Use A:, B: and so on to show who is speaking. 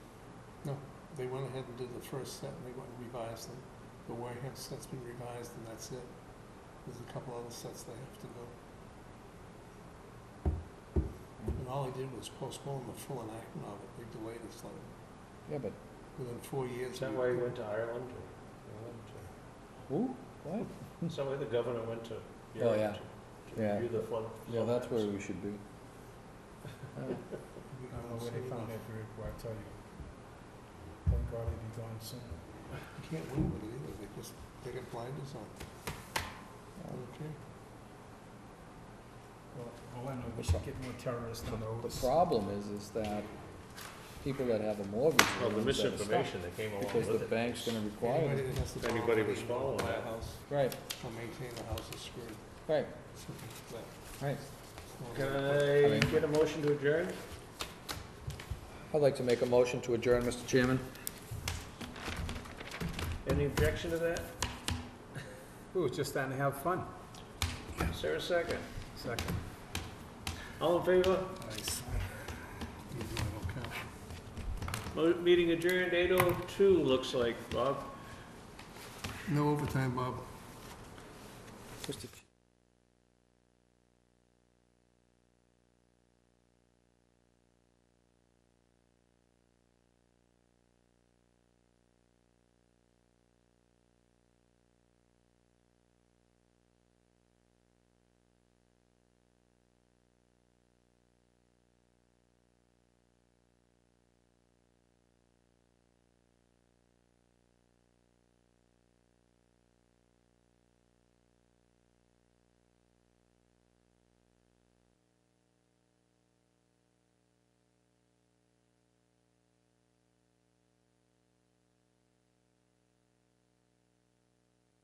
A: They went ahead and did the first set, and they went and revised them. The Wareham set's been revised, and that's it. There's a couple other sets they have to go. And all they did was postpone the full enactment of it, they delayed it slightly.
B: Yeah, but
A: Within four years.
C: Is that
A: we-
C: why he went to Ireland or
B: who? What?
C: England? or- Is that why the governor went to
B: Hmm. Oh, yeah.
C: Europe to- to
B: Yeah.
C: review the flood?
B: Yeah,
C: flood
B: that's where
C: maps?
B: we should be. Uh,
A: we
D: I don't know
A: don't
D: where they
A: see
D: found
A: enough.
D: that group, but I tell you, thank God it'd be gone soon.
A: You can't win with it either, they just, they got blinders on, okay?
D: Well, all I know,
B: The
D: we should
B: pro-
D: get more terrorists on the
B: The
D: roads.
B: problem is, is that people that have a mortgage. are
C: Well,
B: the
C: the
B: ones that are
C: misinformation that came
B: stuck,
C: along with it.
B: Because the bank's gonna require
A: Anybody
B: them.
A: that has to. borrow
C: Anybody
A: money
C: was
A: in order to
C: following
A: buy a
C: that.
A: House,
B: Right,
A: or maintain a house is screwed,
B: right,
A: something like
B: right.
A: that.
C: Can
B: I
C: I
B: mean-
C: get a motion to adjourn?
B: I'd like to make a motion to adjourn, Mr. Chairman.
C: Any objection to that?
D: We were just starting to have fun.
C: Is there a second?
D: Second.
C: All in favor?
A: Nice. You're doing okay.
C: Mo- Meeting adjourned, eight oh two, looks like, Bob.
A: No overtime, Bob.
B: Mr.